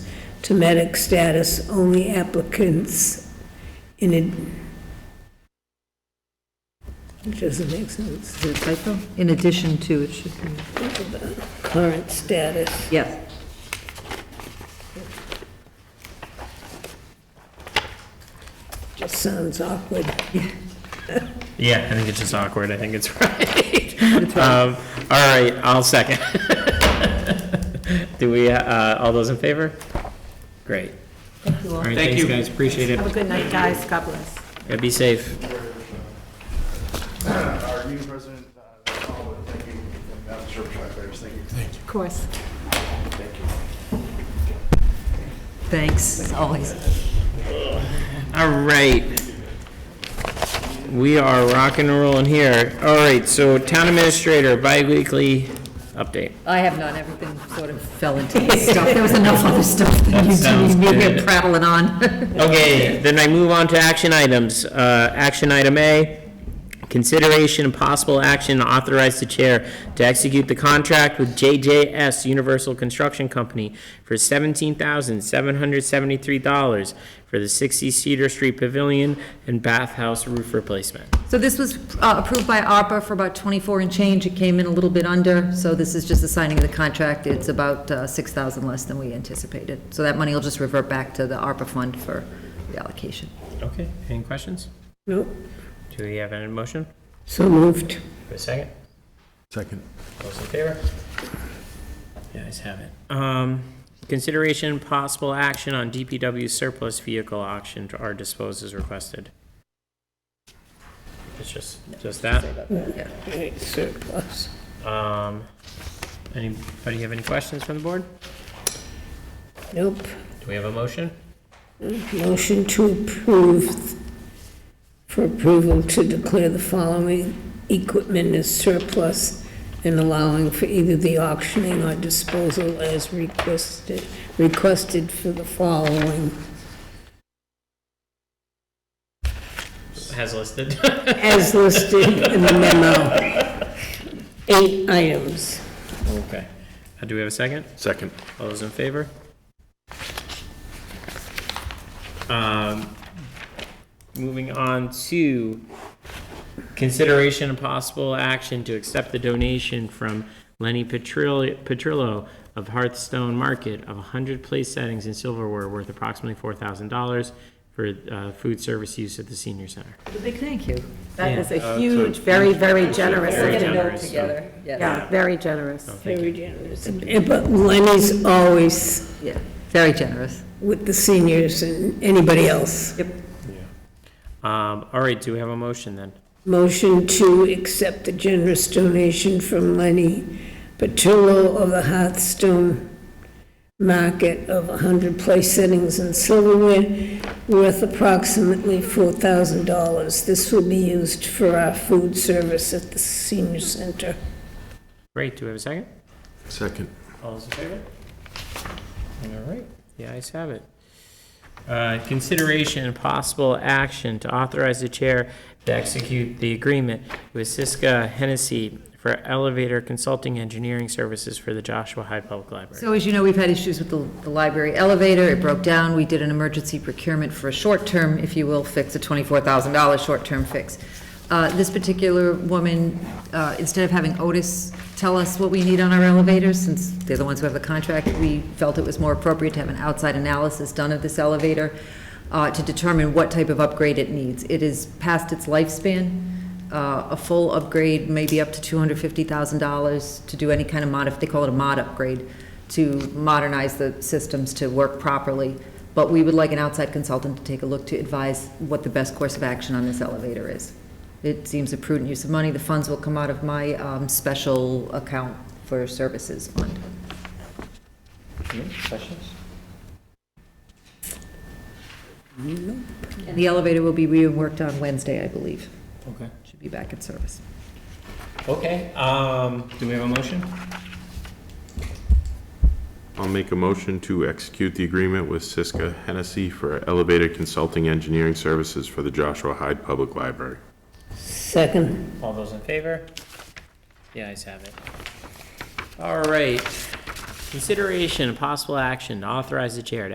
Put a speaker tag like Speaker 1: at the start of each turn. Speaker 1: Semitic status, only applicants in it. It doesn't make sense.
Speaker 2: Is it a typo? In addition to, it should be,
Speaker 1: Current status,
Speaker 2: yes.
Speaker 1: just sounds awkward.
Speaker 3: Yeah, I think it's just awkward. I think it's right. Um, All right, I'll second. Do we, uh, all those in favor? Great. All right, thanks, guys, appreciate it.
Speaker 4: Have a good night, guys. God bless.
Speaker 3: Yeah, Be safe.
Speaker 5: Are you President, uh, Howard? thank you, and Madam Supervisor, thank you.
Speaker 4: Of course.
Speaker 2: Thanks, as always.
Speaker 3: All right. We are rock and rolling here. All right, so town administrator, bi-weekly update.
Speaker 2: I have not, everything sort of fell into this stuff. There was enough other stuff that you
Speaker 3: sounds
Speaker 2: two, we were
Speaker 3: good.
Speaker 2: prattling on.
Speaker 3: Okay, then I move on to action items. Uh, Action item A, consideration and possible action to authorize the chair to execute the contract with JJS Universal Construction Company for $17,773 for the 60 Cedar Street Pavilion and bathhouse roof replacement.
Speaker 2: So this was uh, approved by ARPA for about 24 and change. It came in a little bit under, so this is just the signing of the contract. It's about uh, 6,000 less than we anticipated. So that money will just revert back to the ARPA fund for reallocation.
Speaker 3: Okay, any questions?
Speaker 1: Nope,
Speaker 3: Do we have any motion?
Speaker 1: so moved.
Speaker 3: For a second?
Speaker 5: Second.
Speaker 3: Those in favor? The ayes have it. Um, consideration and possible action on DPW surplus vehicle auction to our disposal as requested. It's just, just that.
Speaker 1: Right, Surplus.
Speaker 3: Um, anybody have any questions from the board?
Speaker 1: Nope.
Speaker 3: Do we have a motion?
Speaker 1: Motion to approve, for approval to declare the following equipment as surplus and allowing for either the auctioning or disposal as requested, requested for the following,
Speaker 3: Has listed.
Speaker 1: as listed in the memo. Eight items.
Speaker 3: Okay. Uh, do we have a second?
Speaker 5: Second.
Speaker 3: All those in favor? Um, Moving on to consideration and possible action to accept the donation from Lenny Petrillo Petrillo of Hearthstone Market of 100 place settings and silverware worth approximately $4,000 for uh, food service use at the senior center.
Speaker 2: A big thank you.
Speaker 4: That is
Speaker 3: Uh,
Speaker 4: a huge, very, very generous.
Speaker 3: Very
Speaker 4: of you.
Speaker 3: generous, so-
Speaker 2: Together, yes,
Speaker 4: Yeah, very generous.
Speaker 1: Very generous. But Lenny's always
Speaker 2: yeah, very generous.
Speaker 1: with the seniors and anybody else.
Speaker 3: Um, All right, do we have a motion then?
Speaker 1: Motion to accept the generous donation from Lenny Patullo of the Hearthstone Market of 100 place settings and silverware worth approximately $4,000. This will be used for our food service at the senior center.
Speaker 3: Great, do we have a second?
Speaker 5: Second.
Speaker 3: All those in favor? All right, the ayes have it. Uh, Consideration and possible action to authorize the chair to execute the agreement with Siska Hennessy for elevator consulting engineering services for the Joshua Hyde Public Library.
Speaker 2: So as you know, we've had issues with the, the library elevator, it broke down, we did an emergency procurement for a short-term, if you will, fix, a twenty-four thousand dollar short-term fix. Uh, this particular woman, uh, instead of having Otis tell us what we need on our elevators, since they're the ones who have the contract, we felt it was more appropriate to have an outside analysis done of this elevator, uh, to determine what type of upgrade it needs. It is past its lifespan, uh, a full upgrade, maybe up to $250,000 to do any kind of mod, they call it a mod upgrade, to modernize the systems to work properly. But we would like an outside consultant to take a look to advise what the best course of action on this elevator is. It seems a prudent use of money. The funds will come out of my um, special account for services fund. Questions? And the elevator will be reworked on Wednesday, I believe
Speaker 3: Okay.
Speaker 2: should be back in service.
Speaker 3: Okay, um, do we have a motion?
Speaker 6: I'll make a motion to execute the agreement with Siska Hennessy for elevator consulting engineering services for the Joshua Hyde Public Library.
Speaker 1: Second.
Speaker 3: All those in favor? The ayes have it. All right. Consideration and possible action to authorize the chair to